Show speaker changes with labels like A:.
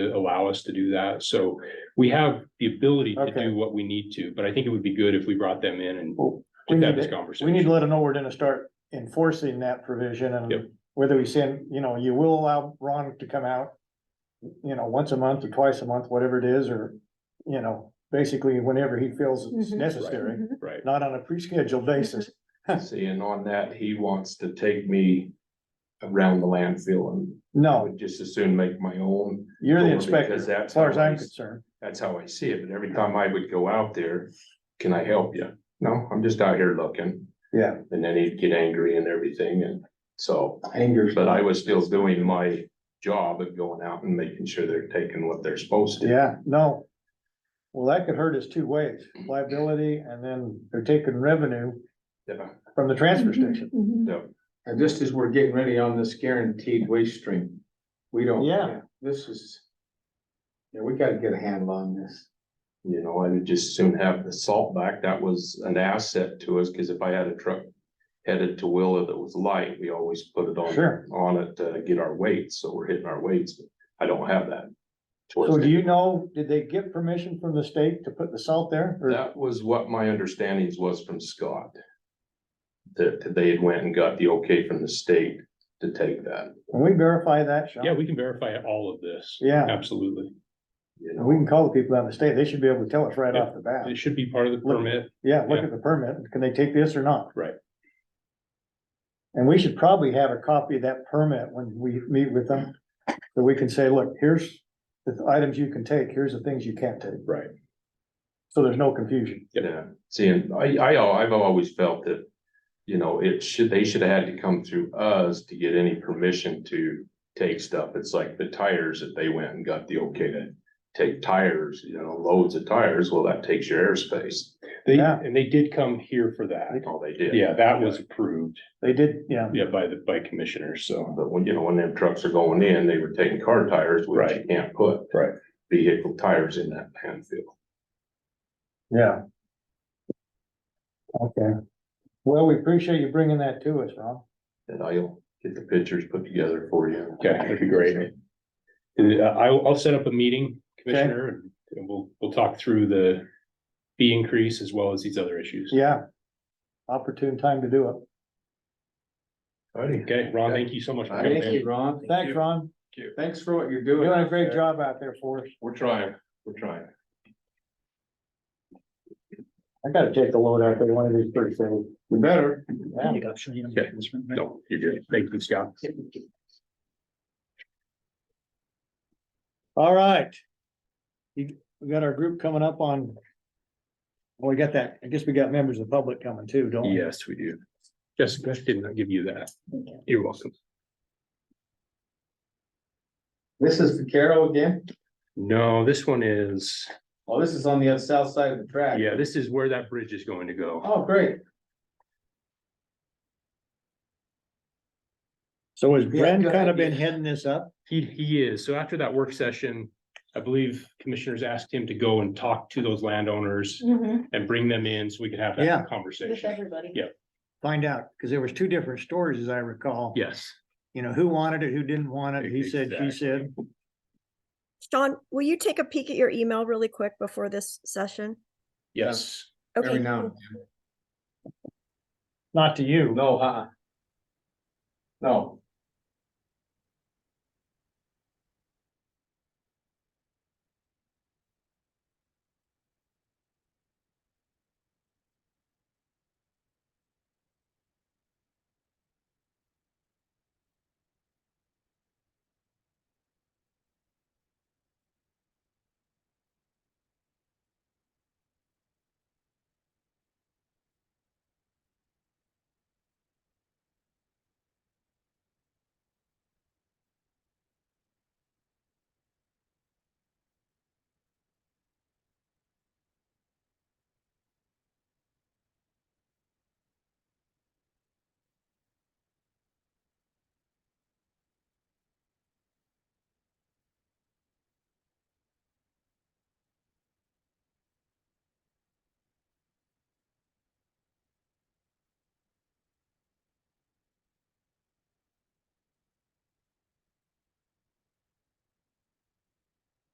A: allow us to do that. So we have the ability to
B: Okay.
A: do what we need to, but I think it would be good if we brought them in and
B: Well, we
A: just have
B: need
A: this
B: to-
A: conversation.
B: We need to let them know we're gonna start enforcing that provision
A: Yep.
B: and whether we send, you know, you will allow Ron to come out. You know, once a month or twice a month, whatever it is, or, you know, basically whenever he feels it's
C: Mhm.
B: necessary,
A: Right, Mm-hmm.
B: not on a pre-scheduled basis.
D: See, and on that, he wants to take me around the landfill and I
B: No,
D: would just as soon make my own.
B: you're the
D: Or because
B: inspector,
D: that's
B: as far as
D: how
B: I'm
D: he's-
B: concerned.
D: That's how I see it, but every time I would go out there, can I help you? No, I'm just out here looking.
B: Yeah.
D: And then he'd get angry and everything and so. Angry. But I was still doing my job of going out and making sure they're taking what they're supposed to.
B: Yeah, no. Well, that could hurt us two ways, liability and then they're taking revenue
D: Yeah.
B: from the transfer station.
C: Mhm.
E: And just as we're getting ready on this guaranteed waste stream, we don't.
B: Yeah.
E: This is. Yeah, we gotta get a handle on this.
D: You know, I would just soon have the salt back. That was an asset to us, because if I had a truck headed to Willa that was light, we always put it on,
B: Sure.
D: on it to get our weights, so we're hitting our weights. but I don't have that.
B: So
D: towards
B: do
D: the-
B: you know, did they get permission from the state to put the salt there? or-
D: That was what my understandings was from Scott. That they had went and got the okay from the state to take that,
B: Can we verify that, Sean?
A: yeah, we can verify all of this.
B: Yeah,
A: Absolutely.
D: you
B: we
D: know,
B: can call the people out of the state. They should be able to tell us right
A: Yeah.
B: off the bat.
A: It should be part of the
B: Look-
A: permit.
B: Yeah, look
A: yeah.
B: at the permit. Can they take this or not?
A: Right.
B: And we should probably have a copy of that permit when we meet with them. So we can say, look, here's the items you can take, here's the things you can't take.
A: Right.
B: So there's no confusion.
D: yeah, seeing, I, I, al- I've always felt that. You know, it should, they should have had to come through us to get any permission to take stuff, it's like the tires that they went and got the okay to. Take tires, you know, loads of tires, well, that takes your airspace,
A: They,
B: Yeah.
A: and they did come here for that.
D: that's all they did.
A: Yeah, that was approved,
B: They did, yeah.
A: yeah, by the, by commissioners, so.
D: But when, you know, when them trucks are going in, they were taking car tires, which you
A: Right.
D: can't put.
A: Right.
D: Vehicle tires in that landfill.
B: Yeah. Okay. Well, we appreciate you bringing that to us, Ron.
D: And I'll get the pictures put together for you.
A: Okay, that'd be great. Uh, I'll, I'll set up a meeting, Commissioner, and- and we'll, we'll talk through the fee increase as well as these other issues.
B: Yeah. Opportune time to do it.
D: Alrighty.
A: Okay, Ron, thank you so much. for coming
E: Thank
A: in.
E: you, Ron.
B: Thanks, Ron.
E: Thanks for what
B: You're
E: you're doing.
B: doing a great job out there for us.
D: We're trying, we're trying.
B: I gotta take the load out there one of these three days.
E: You better.
B: Yeah.
A: Okay, no, you're good. Thank you, Scott.
B: All right. You, we got our group coming up on. Well, we got that. I guess we got members of the public coming too, don't we?
A: Yes, we do. Jessica did not give you that. You're welcome.
E: This is for Carol again.
A: No, this one is,
E: Oh, this is on the south side of the track.
A: yeah, this is where that bridge is going to go.
E: Oh, great.
B: So has
E: Yeah,
B: Brent
E: good
B: kind of been
E: idea.
B: heading this up?
A: He, he is. So after that work session, I believe commissioners asked him to go and talk to those landowners
C: Mhm.
A: and bring them in so we could have
B: Yeah.
A: that
C: With
A: conversation.
C: everybody.
A: Yeah.
B: Find out, because there was two different stories as I recall.
A: Yes.
B: You know, who wanted it, who didn't want it, he said, she
A: Exactly.
B: said.
F: Sean, will you take a peek at your email really quick before this session?
A: Yes.
F: Okay.
E: Every now and
F: cool.
B: Not to
E: then.
B: you.
E: No, uh-uh. No,